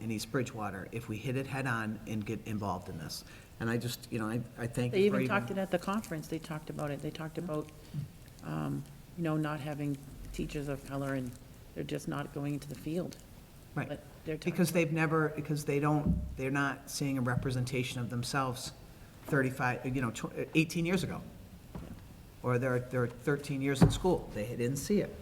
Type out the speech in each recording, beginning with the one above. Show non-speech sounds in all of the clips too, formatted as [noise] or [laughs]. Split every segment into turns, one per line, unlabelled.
in East Bridgewater if we hit it head-on and get involved in this. And I just, you know, I, I thank
They
you for
even
even.
talked it at the conference, they talked about it, they talked about, um, you know, not having teachers of color and they're just not going into the field.
Right.
But they're talking
Because they've never, because they don't, they're not seeing a representation of themselves 35, you know, tw- 18 years ago. Or they're, they're 13 years in school, they didn't see it.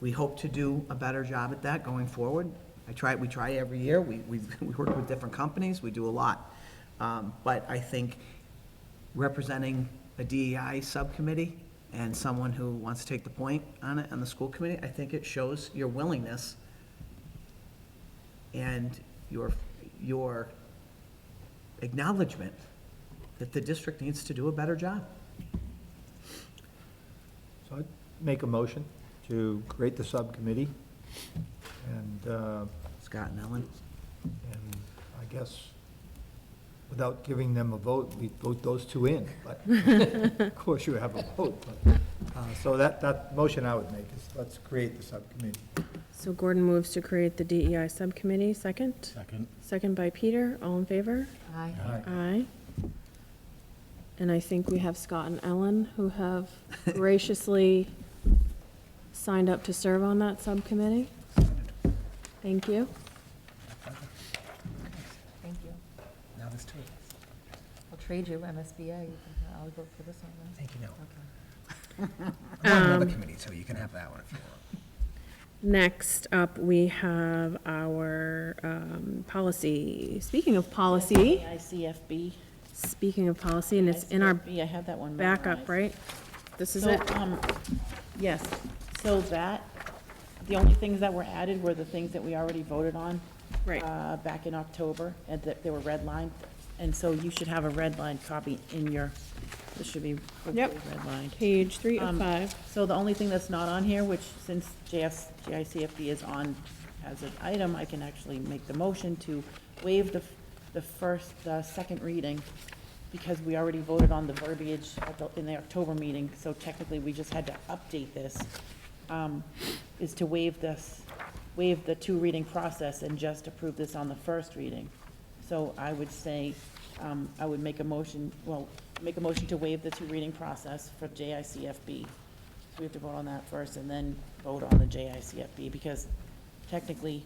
We hope to do a better job at that going forward. I try, we try every year, we, we [laughs] we work with different companies, we do a lot. Um, But I think representing a DEI subcommittee and someone who wants to take the point on it, on the school committee, I think it shows your willingness and your, your acknowledgement that the district needs to do a better job.
So I'd make a motion to create the subcommittee, and, uh,
Scott and Ellen,
and I guess, without giving them a vote, we vote those two in, but, of course, you have a vote, but, uh, so that, that motion I would make is, let's create the subcommittee.
So Gordon moves to create the DEI Subcommittee, second.
Second.
Second by Peter, all in favor?
Aye.
Aye. And I think we have Scott and Ellen, who have graciously signed up to serve on that subcommittee. Thank you.
Thank you.
now there's two of us.
I'll trade you MSBA. You can- I'll go for this one then.
Thank you, no.
Okay.
I'm on
Um,
another committee, so you can have that one if you want.
Next up, we have our um, policy. Speaking of policy,
ICFB.
speaking of policy, and it's in our
ICFB, I have that one memorized.
backup, right? This is
So,
it?
um, yes, so that, the only things that were added were the things that we already voted on.
Right.
uh, Back in October, and that they were redlined, and so you should have a redlined copy in your, this should be hopefully
Yep.
redlined.
Page three of
Um,
five.
So the only thing that's not on here, which since JS, JICFD is on as an item, I can actually make the motion to waive the, the first, uh second reading because we already voted on the verbiage at the, in the October meeting, so technically we just had to update this. um, Is to waive this, waive the two-reading process and just approve this on the first reading. So I would say, um, I would make a motion, well, make a motion to waive the two-reading process for JICFB. We have to vote on that first and then vote on the JICFB, because technically,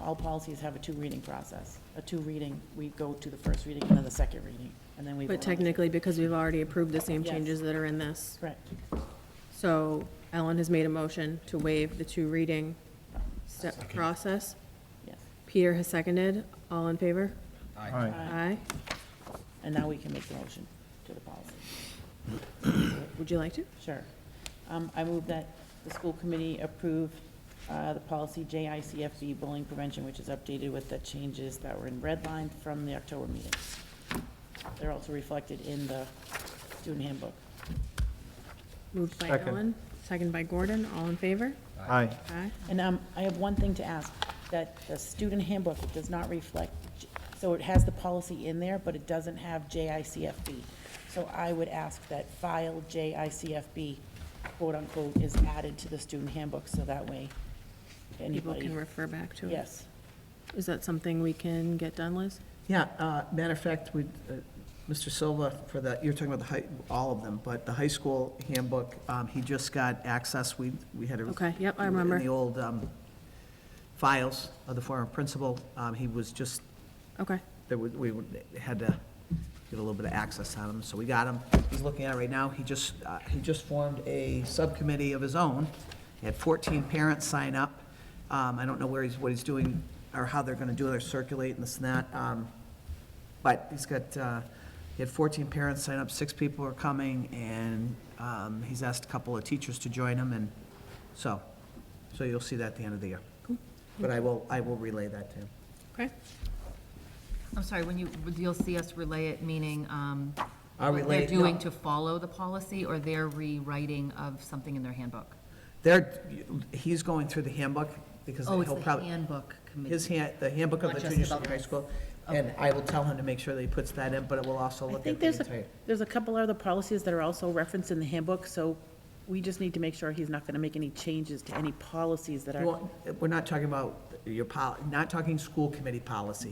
all policies have a two-reading process. A two-reading, we go to the first reading and then the second reading, and then we. vote
But
on the-
technically, because we've already approved the same
Yes.
changes that are in this.
Correct.
So Ellen has made a motion to waive the two reading step
Second.
process.
Yes.
Peter has seconded. All in favor?
All right.
Aye.
And now we can make the motion to the policy.
Would you like to?
Sure. Um, I move that the school committee approve uh, the policy JICFB bullying prevention, which is updated with the changes that were in red line from the October meeting. They're also reflected in the student handbook.
Moved by
Second.
Ellen, seconded by Gordon. All in favor?
Aye.
Aye.
And um, I have one thing to ask, that the student handbook does not reflect, so it has the policy in there, but it doesn't have JICFB. So I would ask that file JICFB, quote-unquote, is added to the student handbook, so that way
People
anybody,
can refer back to it.
yes.
Is that something we can get done, Liz?
Yeah, uh, matter of fact, we, uh, Mr. Silva, for that, you're talking about the high, all of them, but the high school handbook, um, he just got access, we, we had a.
Okay, yep, I
we were
remember.
In the old um, files of the former principal, Um, he was just,
Okay.
there was, we had to get a little bit of access on him, so we got him. He's looking at it right now, he just, uh, he just formed a subcommittee of his own. He had fourteen parents sign up. Um, I don't know where he's, what he's doing, or how they're gonna do, it. they're circulating this and that. Um, but he's got, uh, he had 14 parents sign up, six people are coming, and um, he's asked a couple of teachers to join him, and so, so you'll see that at the end of the year. But I will, I will relay that to him.
Okay.
I'm sorry, when you, you'll see us relay it, meaning um,
I'll
what
relay
they're
it, no.
doing to follow the policy or their rewriting of something in their handbook?
There, he's going through the handbook, because
Oh, it's
he'll
the
probably,
handbook committee.
his hand, the handbook of
Not
the
just
junior senior
about
high
this.
school, and I will tell him to make sure that he puts that in, but it will also
I
look
think
at the
there's a,
entire.
there's a couple other policies that are also referenced in the handbook, so we just need to make sure he's not going to make any changes to any policies that are,
Well, We're not talking about your, pol- not talking school committee policy,